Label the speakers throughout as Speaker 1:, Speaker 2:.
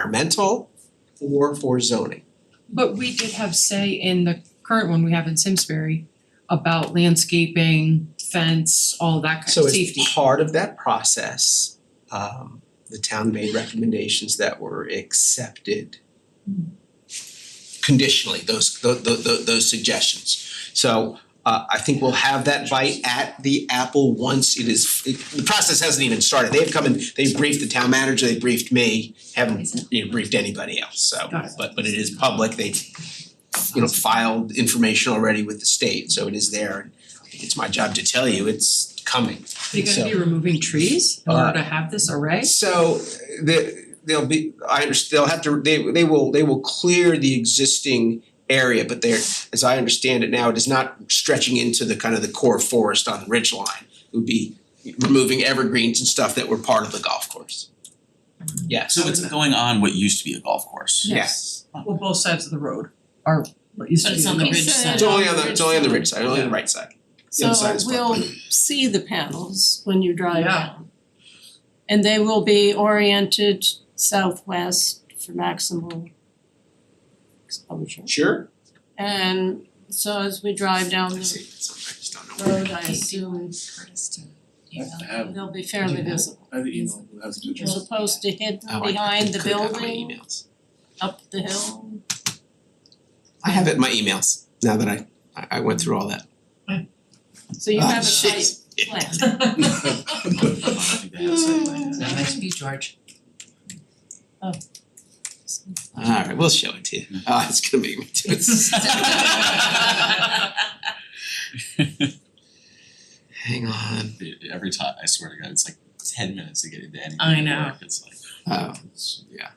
Speaker 1: environmental or for zoning.
Speaker 2: But we did have say in the current one we have in Simsbury about landscaping, fence, all of that
Speaker 1: So
Speaker 2: kind of
Speaker 1: as
Speaker 2: safety.
Speaker 1: part of that process, um the town made recommendations that were accepted conditionally, those tho- tho- tho- those suggestions. So uh I think we'll have that bite at the apple once it is, it- the process hasn't even started. They've come and they briefed the town manager, they briefed me, haven't you know, briefed anybody else, so.
Speaker 2: Got it.
Speaker 1: But but it is public, they you know, filed information already with the state, so it is there. And It's my job to tell you, it's coming.
Speaker 2: Are you gonna be removing trees in order to have this array?
Speaker 1: So the they'll be, I understand, they'll have to, they they will, they will clear the existing area, but they're, as I understand it now, it is not stretching into the kind of the core forest on the ridge line. It would be removing evergreens and stuff that were part of the golf course. Yes.
Speaker 3: So it's going on what used to be a golf course.
Speaker 1: Yes.
Speaker 2: Well, both sides of the road are what used
Speaker 4: But
Speaker 2: to
Speaker 4: it's
Speaker 2: be
Speaker 4: on the
Speaker 2: golf
Speaker 4: ridge
Speaker 2: course.
Speaker 4: side.
Speaker 1: It's only on the, it's only on the ridge side, only on the right side. The other side is public.
Speaker 4: So we'll see the panels when you drive
Speaker 2: Yeah.
Speaker 4: down. And they will be oriented southwest for maximal exposure.
Speaker 1: Sure.
Speaker 4: And so as we drive down
Speaker 1: I see,
Speaker 4: the
Speaker 1: sometimes don't know.
Speaker 4: road, I assume
Speaker 2: Curtis to
Speaker 5: I have to have,
Speaker 4: they'll be fairly visible.
Speaker 5: I have the email that has pictures.
Speaker 4: As opposed to hidden
Speaker 1: Oh, I
Speaker 4: behind the
Speaker 1: could have my
Speaker 4: building,
Speaker 1: emails.
Speaker 4: up the hill.
Speaker 1: I have it in my emails now that I I I went through all that.
Speaker 4: So you
Speaker 1: Ah,
Speaker 4: have a
Speaker 1: shit.
Speaker 4: site plan.
Speaker 2: That makes me George.
Speaker 1: Alright, we'll show it to you. Ah, it's gonna make me do it. Hang on.
Speaker 3: Every time, I swear to God, it's like ten minutes to get into anything
Speaker 2: Mm-hmm. I
Speaker 3: at
Speaker 2: know.
Speaker 3: work. It's like,
Speaker 1: Oh, it's- yeah.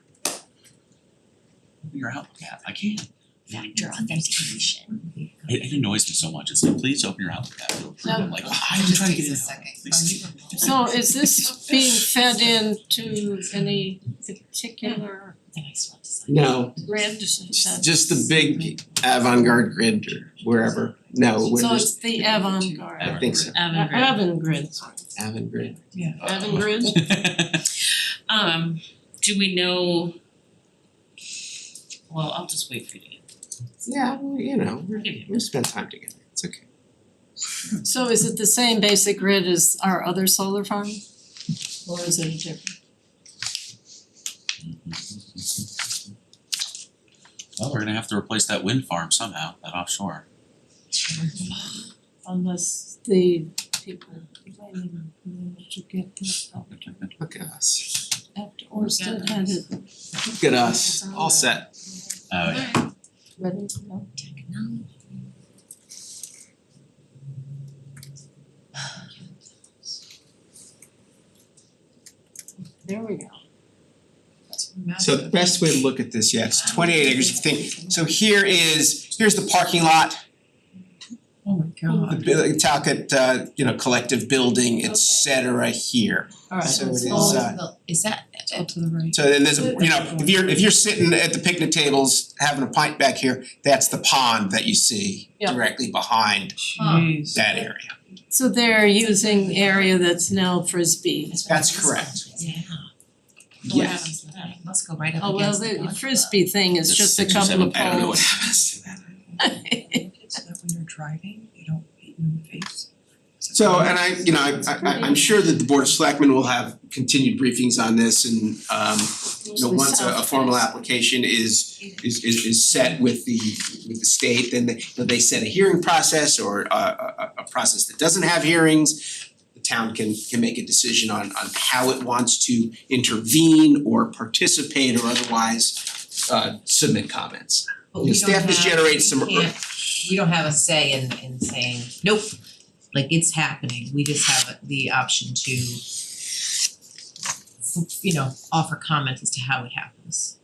Speaker 3: you're out, yeah, I can't.
Speaker 6: factor authentication.
Speaker 3: It it annoys me so much, it's like, please open your Outlook app, it'll approve, I'm like, I'm
Speaker 2: Oh, Just
Speaker 3: trying to
Speaker 2: takes
Speaker 3: get in.
Speaker 2: a second.
Speaker 3: Please.
Speaker 2: Are you-
Speaker 4: So is this being fed into any particular
Speaker 6: The next one is
Speaker 1: No,
Speaker 4: grant decision?
Speaker 1: just just the big avant-garde grid or wherever. No, we're
Speaker 4: So
Speaker 1: just
Speaker 4: it's the avant-garde.
Speaker 1: I think so.
Speaker 6: Avangrid.
Speaker 4: Avant-garde.
Speaker 1: avant-garde.
Speaker 3: Avangrid?
Speaker 6: Um, do we know? Well, I'll just wait for you to get,
Speaker 1: Yeah, well, you know, we're
Speaker 6: I'll give you.
Speaker 1: we'll spend time together. It's okay.
Speaker 4: So is it the same basic grid as our other solar farm? Or is it different?
Speaker 3: Well, we're gonna have to replace that wind farm somehow, that offshore.
Speaker 4: Unless the people complaining managed to get this up
Speaker 1: Look at us.
Speaker 4: after Orsted had it
Speaker 1: Look at us. All set.
Speaker 3: Oh, yeah.
Speaker 4: ready to go.
Speaker 6: Technology.
Speaker 4: There we go.
Speaker 1: So the best way to look at this, yeah, it's twenty-eight acres of thing. So here is, here's the parking lot.
Speaker 2: Oh my
Speaker 1: the
Speaker 2: god.
Speaker 1: bu- talk at uh you know collective building, et cetera here.
Speaker 2: Alright.
Speaker 1: So it is
Speaker 2: all-
Speaker 1: uh
Speaker 6: Is that,
Speaker 2: it's all to the right.
Speaker 1: so then there's a, you know, if you're if you're sitting at the picnic tables having a pint back here, that's the pond that you see
Speaker 4: Yeah.
Speaker 1: directly behind
Speaker 6: Hmm.
Speaker 2: Jeez.
Speaker 1: that area. uh,
Speaker 4: So they're using the area that's now frisbee.
Speaker 1: That's correct.
Speaker 6: yeah. What
Speaker 1: Yes.
Speaker 6: happens to that? Let's go right up
Speaker 4: Oh, well,
Speaker 6: against the
Speaker 4: the
Speaker 6: dog.
Speaker 4: frisbee thing is
Speaker 3: There's
Speaker 4: just a
Speaker 3: six or
Speaker 4: couple
Speaker 3: seven
Speaker 4: of poles.
Speaker 1: I don't know what happens to that.
Speaker 2: So that when you're driving, you don't hit you in the face.
Speaker 1: So and I, you know, I I I'm sure that the Board of Selectmen will have continued briefings on this and um you know,
Speaker 4: Mostly
Speaker 1: once uh, a a
Speaker 4: south
Speaker 1: formal
Speaker 4: face.
Speaker 1: application is is is is set with the with the state, then they, you know, they set a hearing process or a a a- a process that doesn't have hearings. The town can can make a decision on on how it wants to intervene or participate or otherwise uh submit comments.
Speaker 7: But
Speaker 1: You know,
Speaker 7: we don't
Speaker 1: Staff has
Speaker 7: have-
Speaker 1: generated some
Speaker 7: we can't- we don't have a say in in saying, nope, like it's happening, we just have the option to you know, offer comment as to how it happens.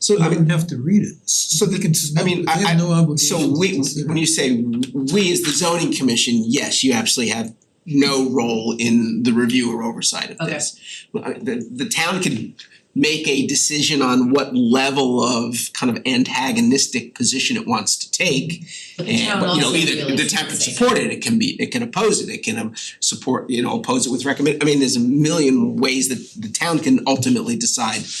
Speaker 1: So I mean,
Speaker 8: have to read it.
Speaker 1: so the
Speaker 8: They can submit,
Speaker 1: I mean,
Speaker 8: they
Speaker 1: I- I-
Speaker 8: have no
Speaker 1: So
Speaker 8: obligation to
Speaker 1: we,
Speaker 8: consider
Speaker 1: when you say we as the zoning commission, yes, you absolutely have no role in the review or oversight of
Speaker 7: Okay.
Speaker 1: this. Well, I- The the town can make a decision on what level of kind of antagonistic position it wants to take.
Speaker 7: But the
Speaker 1: And
Speaker 7: town
Speaker 1: but you know,
Speaker 7: also really
Speaker 1: either the
Speaker 7: should
Speaker 1: town can
Speaker 7: say that.
Speaker 1: support it, it can be, it can oppose it, it can um support, you know, oppose it with recommend, I mean, there's a million ways that the town can ultimately decide